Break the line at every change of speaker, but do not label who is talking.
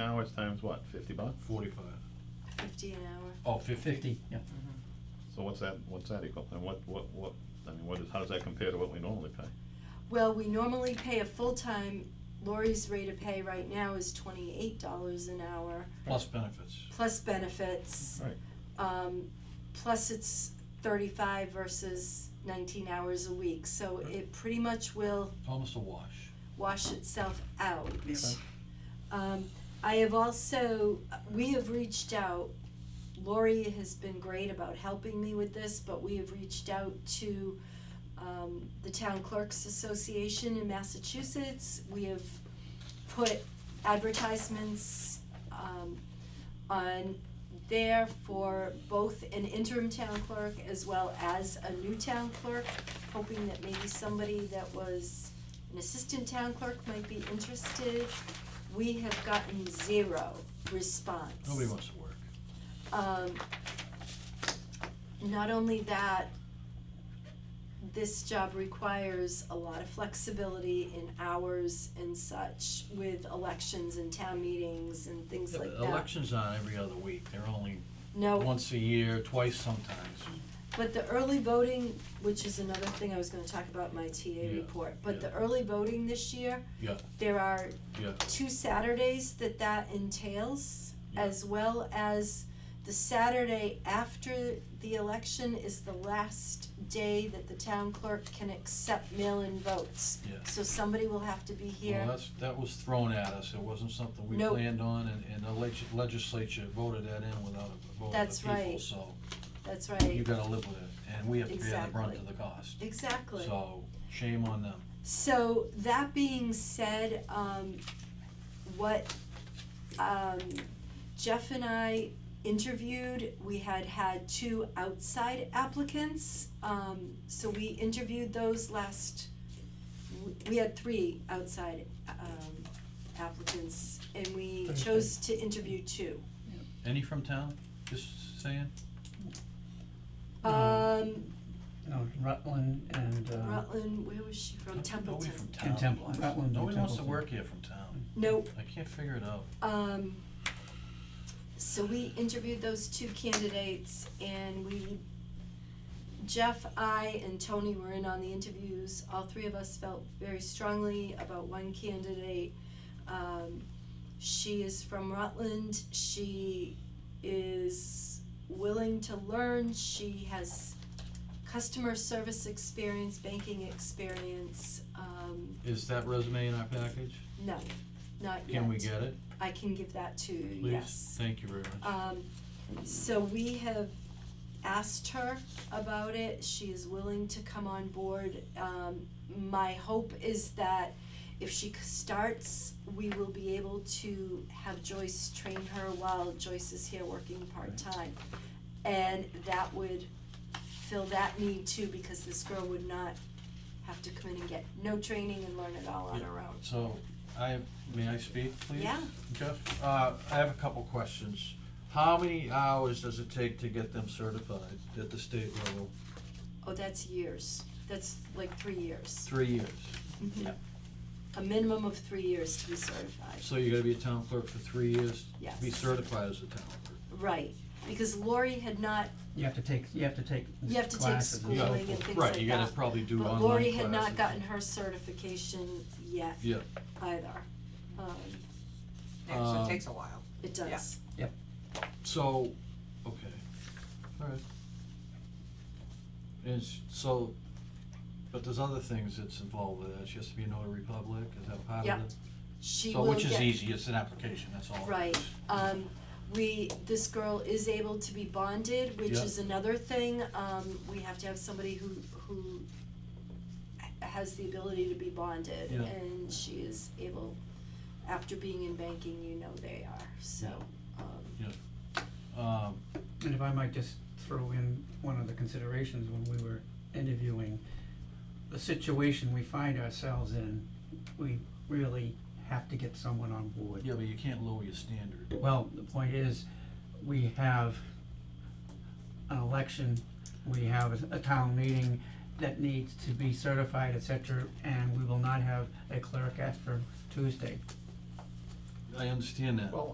hours times what, fifty bucks?
Forty-five.
fifty an hour.
Oh, fif- fifty, yeah.
So what's that, what's that equal, and what, what, what, I mean, what is, how does that compare to what we normally pay?
Well, we normally pay a full-time, Lori's rate of pay right now is twenty-eight dollars an hour,
Plus benefits.
plus benefits.
Right.
Um, plus it's thirty-five versus nineteen hours a week, so it pretty much will
Almost a wash.
wash itself out.
Okay.
Um, I have also, we have reached out, Lori has been great about helping me with this, but we have reached out to um, the Town Clerks Association in Massachusetts. We have put advertisements um, on there for both an interim town clerk as well as a new town clerk, hoping that maybe somebody that was an assistant town clerk might be interested. We have gotten zero response.
Nobody wants to work.
Um, not only that, this job requires a lot of flexibility in hours and such with elections and town meetings and things
Yeah,
like
but
that.
Elections aren't every other week. They're only
No,
once a year, twice sometimes.
but the early voting, which is another thing I was gonna talk about in my TA
Yeah,
report, but
yeah.
the early voting this year,
Yeah,
there are
yeah.
two Saturdays that that entails,
Yeah.
as well as the Saturday after the election is the last day that the town clerk can accept mail-in votes.
Yeah.
So somebody will have to be
Well,
here.
that's, that was thrown at us. It wasn't something we
No.
planned on and, and the legis- legislature voted that in without a vote of
That's
the people,
right.
so
That's
you
right,
gotta live with it. And we have to bear the brunt
Exactly.
of the cost.
exactly.
So shame on them.
So that being said, um, what, um, Jeff and I interviewed, we had had two outside applicants. Um, so we interviewed those last, w- we had three outside, um, applicants and we
Thursday.
chose to interview two.
Any from town? Just saying?
Um,
No, Rutland and, uh,
Rutland, where was she from?
Nobody
Templeton.
from town.
and Temple, Rutland and
Nobody wants to
Templeton.
work here from town.
Nope,
I can't figure it out.
Um, so we interviewed those two candidates and we, Jeff, I, and Tony were in on the interviews. All three of us felt very strongly about one candidate. Um, she is from Rutland. She is willing to learn. She has customer service experience, banking experience. Um,
Is that resume in our package?
no, not yet.
Can we get it,
I can give that to you,
please?
yes.
Thank you very much.
Um, so we have asked her about it, she is willing to come on board. Um, my hope is that if she c- starts, we will be able to have Joyce train her while Joyce is here working part-time. And that would fill that need too, because this girl would not have to come in and get no training and learn it all on her own.
So, I, may I speak, please?
Yeah.
Jeff, uh, I have a couple questions. How many hours does it take to get them certified at the state level?
Oh, that's years, that's like three years.
Three years.
Mhm. A minimum of three years to be certified,
So you're gonna be a town clerk for three years?
Yes.
To be certified as a town clerk?
right, because Lori had not,
you have to take, you have to take
You have to take
classes and
schooling
so
and
forth.
things
Right,
like
you gotta
that.
probably do
but
online
Lori had
classes.
not gotten her certification yet
Yeah,
either, um,
Yeah, so
Um,
it takes a while.
it does.
so, okay, alright. And s- so, but there's other things that's involved with that, she has to be a notary public, is that part of it?
Yeah. She
So,
will
which is
get,
easy, it's an application, that's all. it
right,
is.
um, we, this girl is able to be bonded, which
Yeah.
is another thing, um, we have to have somebody who, who ha- has the ability to be bonded,
Yeah.
and she is able, after being in banking, you know they are, so, um,
Um,
And if I might just throw in one of the considerations when we were interviewing, the situation we find ourselves in, we really have to get someone on board.
yeah, but you can't lower your standard.
Well, the point is, we have an election, we have a- a town meeting that needs to be certified, et cetera, and we will not have a clerk after Tuesday.
I understand that.